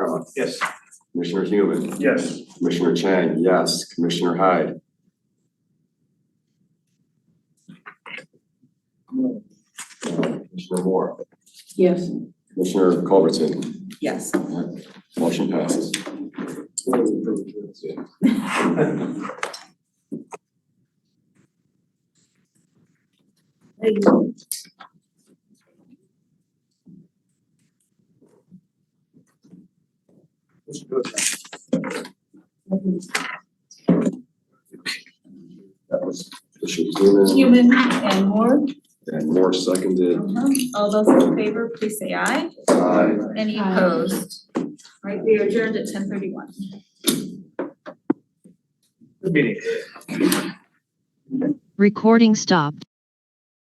Garland, Yes. Commissioner Human, Yes. Commissioner Chang, yes, Commissioner Hyde. Commissioner Moore, Yes. Commissioner Culbertson, Yes. motion passes. That was Commissioner Human Human and Moore. and Moore seconded. All those in favor, please say aye. Aye. Any Aye. opposed? All Right, we are adjourned at ten thirty-one. Good meeting. Recording stopped.